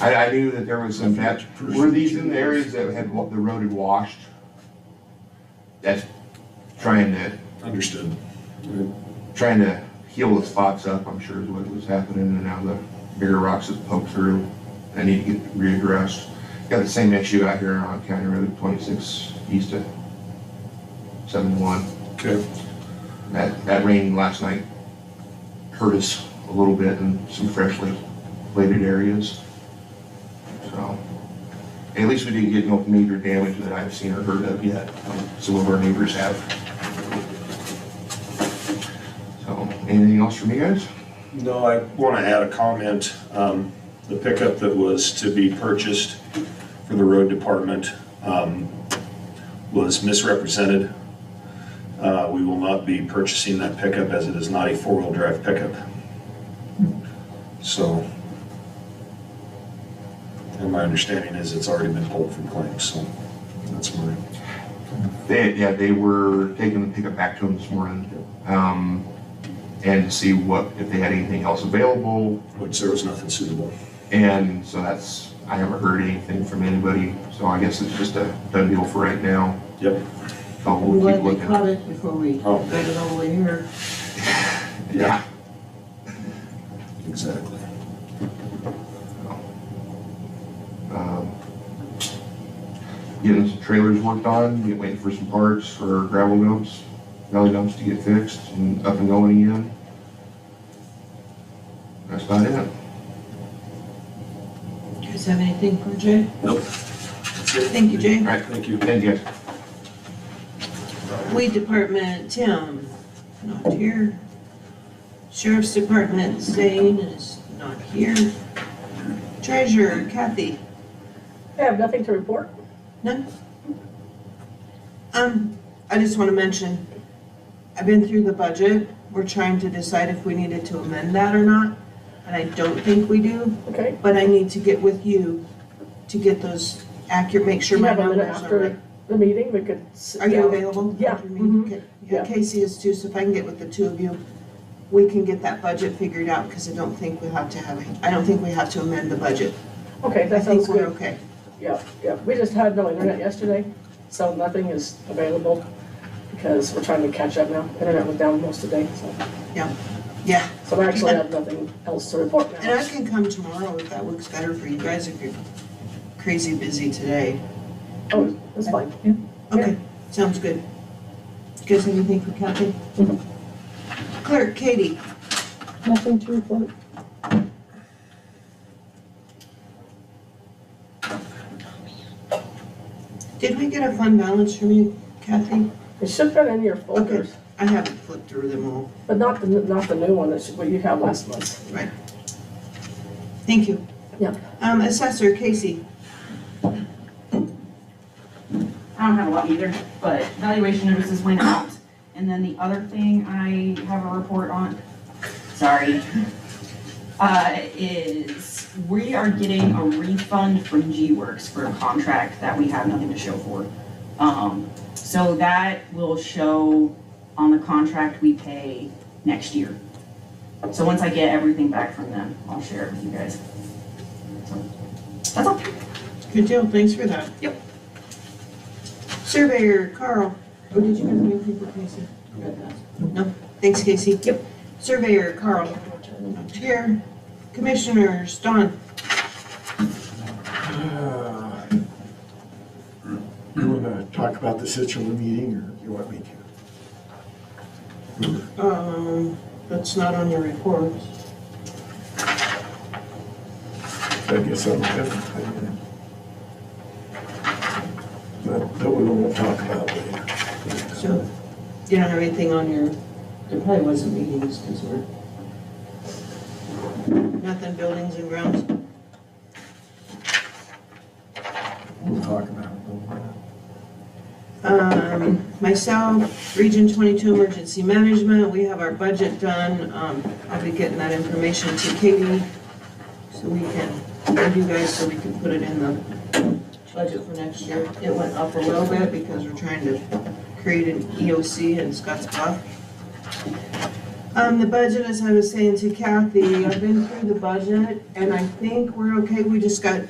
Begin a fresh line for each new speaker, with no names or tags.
I, I knew that there was some patch, were these in the areas that had, wa- the road had washed? That's trying to,
Understood.
trying to heal the spots up, I'm sure is what was happening, and now the bigger rocks have poked through. I need to get readdressed. Got the same issue out here on County Road twenty-six east of seven-one.
Okay.
That, that rain last night hurt us a little bit in some freshly plated areas. So, at least we didn't get no major damage that I've seen or heard of yet. Some of our neighbors have. So, anything else from you guys?
No, I want to add a comment. Um, The pickup that was to be purchased for the road department um, was misrepresented. Uh, We will not be purchasing that pickup as it is not a four-wheel drive pickup. So, and my understanding is it's already been pulled from claims, so that's my,
They, yeah, they were taking the pickup back to them this morning. Um, and to see what, if they had anything else available,
which there was nothing suitable.
And so that's, I haven't heard anything from anybody, so I guess it's just a done deal for right now.
Yep.
So
I'm
we'll keep
glad we
looking.
caught it before we
Oh.
got it all the way here.
Yeah.
Exactly.
um, Getting some trailers worked on, get waiting for some parts for gravel dumps, belly dumps to get fixed and up and going again. That's about it.
Do you guys have anything for Jay?
Nope.
Thank you, Jay.
Alright,
Thank you.
thank you.
Weed Department, Tim, not here. Sheriff's Department, Zane is not here. Treasurer, Kathy.
I have nothing to report.
Um, I just want to mention, I've been through the budget. We're trying to decide if we needed to amend that or not, and I don't think we do.
Okay.
But I need to get with you to get those accurate, make sure
You
my
have a minute
numbers are
after
right.
The meeting, we could sit
Are you
down.
available?
Yeah,
after your meeting?
mhm,
Okay.
yeah.
Yeah, Casey is too, so if I can get with the two of you, we can get that budget figured out, because I don't think we have to have, a- I don't think we have to amend the budget.
Okay,
I
that
think
sounds
we're
good.
okay.
Yeah, yeah. We just had no internet yesterday, so nothing is available because we're trying to catch up now. Internet was down most of the day, so,
Yeah,
so I actually have nothing else to report
and I
now.
can come tomorrow if that works better for you guys, if you're crazy busy today.
Oh, it's fine.
Okay, sounds good. You guys have anything for Kathy?
Mhm.
Clerk, Katie,
Nothing to report.
did we get a fund balance from you, Kathy?
It should have been in your folders,
I haven't flipped through them all.
but not the, not the new one, that's what you had last month.
Thank you.
Yeah.
Um, Assessor, Casey.
I don't have a lot either, but valuation notices went out. And then the other thing I have a report on, sorry, uh, is we are getting a refund from G-Works for a contract that we have nothing to show for. Um, so that will show on the contract we pay next year. So once I get everything back from them, I'll share it with you guys. So, That's all.
Good deal, thanks for that.
Yep.
Surveyor, Carl. Oh, did you have any people, Casey? No, thanks, Casey. Yep. Surveyor, Carl. Not Here. Commissioners, Don.
You want to talk about the Sitchell meeting, or you want me to?
Um, that's not on your report.
I guess I'm different than That, that we won't talk about later.
So, you don't have anything on your, there probably wasn't meetings, because we're. Nothing buildings and grounds.
We'll talk about it. later.
Um, myself, Region 22 Emergency Management, we have our budget done. Um, I'll be getting that information to Katie so we can, and you guys, so we can put it in the budget for next year. It went up a little bit E because we're trying to create an EOC in Scotts Bluff. Um, the budget, as I was saying to Kathy, I've been through the budget, and I think we're okay, we just got